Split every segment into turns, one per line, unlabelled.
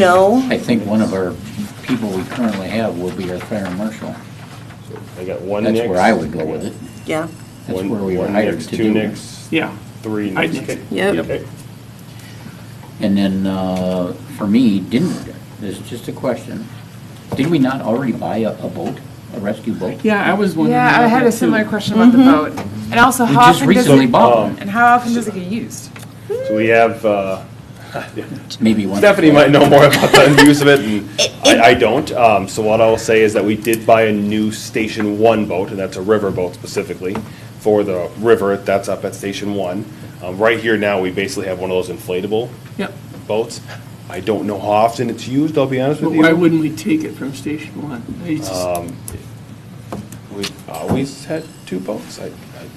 No,
I think one of our people we currently have will be our fire marshal.
I got one
That's
Nix.
where I would go with it.
yeah,
That's
One-
where we were
one
hired
Nix,
to
Two
do it.
Nix,
Yeah,
three
I'd
Nix.
nix it.
yep,
Okay.
And then, uh, for me, didn't, this is just a question, did we not already buy a a boat, a rescue boat?
yeah, I was wondering.
Yeah, I
about
had
that,
a similar
too.
question about the boat. And also,
Mm-hmm. We
how
just
often does
recently
it,
bought one,
um,
and how often does it get used?
So we have, uh,
maybe one.
Stephanie might know more about the use of it, and I, I don't. Um, so what I'll say is that we did buy a new Station One boat, and that's a river boat specifically for the river. That's up at Station One. Um, right here now, we basically have one of those inflatable
Yep.
boats. I don't know how often it's used. I'll be honest
But
with you.
why wouldn't we take it from Station One? I just-
We've always had two boats. I,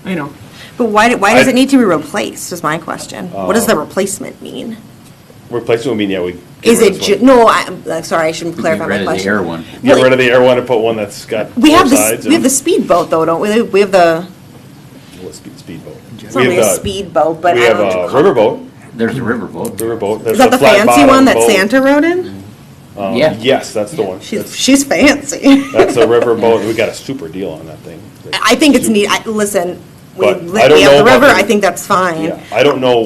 I
I know.
but why, do- why does
I-
it need to be replaced, is my question. What does the replacement mean?
replacement would mean yeah we get
Is
rid of
it,
this
ju-
one.
no, I, I'm sorry, I shouldn't
Get
clarify
rid
my
of the
question.
air one.
get
Like,
rid of the air one and put one that's got
We
four
have the,
sides
we have
and-
the speedboat though, don't we? We have the,
Well, speed speedboat.
it's not really a speedboat, but
we
I
have
don't know what
a
you call it.
riverboat.
There's a river boat.
Riverboat.
Is that the fancy one that Santa rode in?
Yeah.
Um, Yes, that's the one.
She's,
That's,
she's fancy.
that's a riverboat. We got a super deal on that thing.
I think it's
Super-
neat, I, listen, we
But I
lit
don't
me
know
up the
about
river,
the-
I think that's fine.
Yeah, I don't know.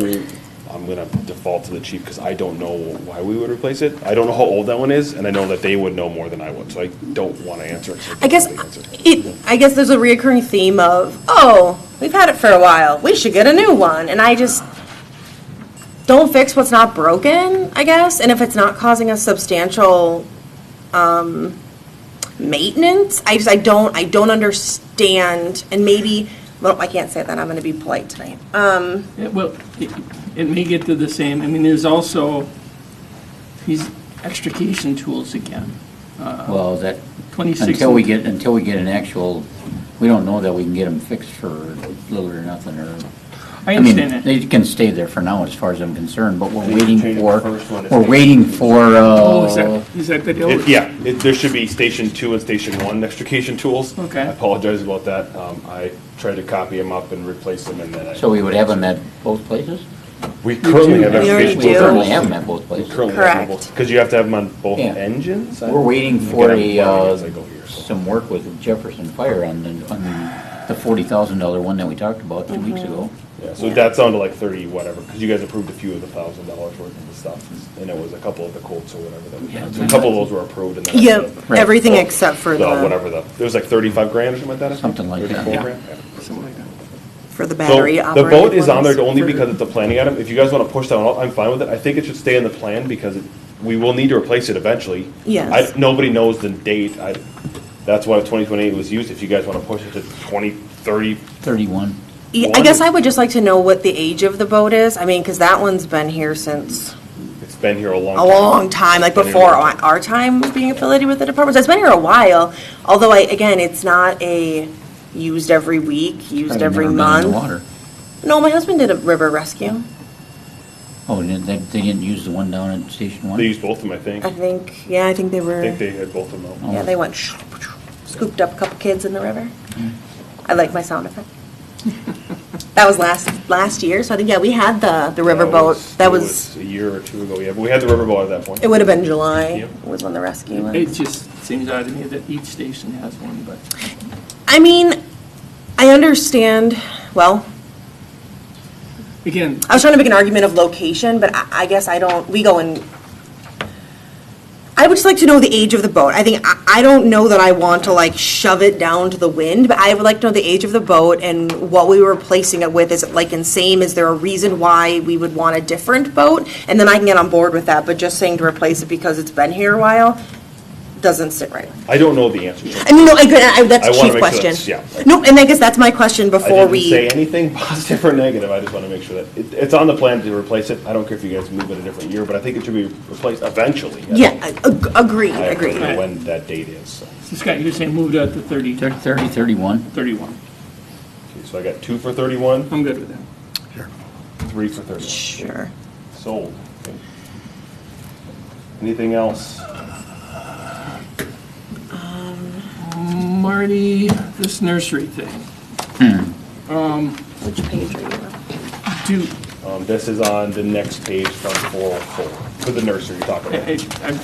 I'm gonna default to the chief because I don't know why we would replace it. I don't know how old that one is, and I know that they would know more than I would, so I don't want to answer. it, so
I guess
don't answer.
it. I guess there's a reoccurring theme of, oh, we've had it for a while. We should get a new one. And I just don't fix what's not broken. I guess, and if it's not causing us substantial um, maintenance, I just I don't I don't understand. And maybe well, I can't say that. I'm going to be polite tonight. Uh,
Yeah, Well, it- it may get to the same, I mean, there's also these extrication tools again.
Well, that,
26
until we
and-
get, until we get an actual, we don't know that we can get them fixed for little or nothing, or.
I
mean,
understand that.
They can stay there for now, as far as I'm concerned, but we're waiting
change the
for,
first one to
we're
state.
waiting for,
Oh, is
uh,
that, is that the deal?
It- Yeah, it, there should be station two and station one extrication tools.
Okay.
I apologize about that. Um, I tried to copy them up and replace them, and then I.
so we would have them at both places?
We currently have
We already
extrication
We
tools.
do.
currently have them at both places.
Correct.
Because you have to have them on both
Yeah.
engines? I-
We're waiting for
Again, I'm
a,
learning as I go
uh,
here, so.
some work with Jefferson Fire on the, on the forty thousand dollar one that we talked about two weeks
Mm-hmm.
ago.
Yeah, so that's down to like thirty, whatever, because you guys approved a few of the thousand dollars worth of the stuff, and it was a couple of the quotes or whatever that we had. So a couple of those were approved and then. I
yeah,
said,
Right.
everything except for
uh,
the
Whatever the, it was like thirty-five grand or something like that? I think?
Something like that.
34
Yeah.
grand? Yeah.
Something like that.
for the
So
battery.
The boat is on there only because it's a planning item. If you guys want to push that one, out, I'm fine with it. I think it should stay in the plan because it- we will need to replace it eventually.
Yes.
I- Nobody knows the date. I, that's why 2028 was used. If you guys want to push it to 2030,
Thirty-one.
Yeah, I guess I would just like to know what the age of the boat is. I mean, because that one's been here since.
it's been here a long
a
time.
long time, like
Been here
before
a long
our our time of being affiliated with the department. So it's been here a while, although I, again, it's not a used every week, used
Probably
every
never been in the
month.
water.
No, my husband did a river rescue,
Oh, and they, they didn't use the one down at Station One?
They used both of them, I think.
I
I
think, yeah, I think they were,
think they had both of them. out.
yeah, they went shoo, shoo, scooped up a couple kids in the river. I like my sound effect. That was last, last year, so I think, yeah, we had the, the river boat, that was,
A year or two ago, yeah, but we had the riverboat at that point.
it would have been July,
Yep.
was when the rescue was.
It just seems odd to me that each station has one, but
I mean, I understand, well,
again,
I was trying to make an argument of location, but I, I guess I don't, we go in, I would just like to know the age of the boat. I think, I, I don't know that I want to like shove it down to the wind, but I would like to know the age of the boat and what we were replacing it with. Is it like insane? Is there a reason why we would want a different boat? And then I can get on board with that, but just saying to replace it because it's been here a while doesn't sit right.
I don't know the answer. to it.
I mean, no, I, I- that's
I
a chief
wanna make sure
question.
that's- yeah.
No, and I guess that's my question
I
before
didn't
we.
say anything positive or negative. I just want to make sure that it, it's on the plan to replace it. I don't care if you guys move it a different year, but I think it should be replaced eventually. I don't-
Yeah, ag- ag- agreed,
I don't
agreed.
know when that date is. So,
so Scott, you're saying moved out to 30,
Thir- Thirty, thirty-one?
31.
Okay, so I got two for 31,
I'm good with that.
three for 31.
Sure.
Sold. Okay. Anything else?
Marty, this nursery thing, Um,
Which page are you on?
do,
Um, this is on the next page from 404. for the nursery we talked about.
I- I- I'm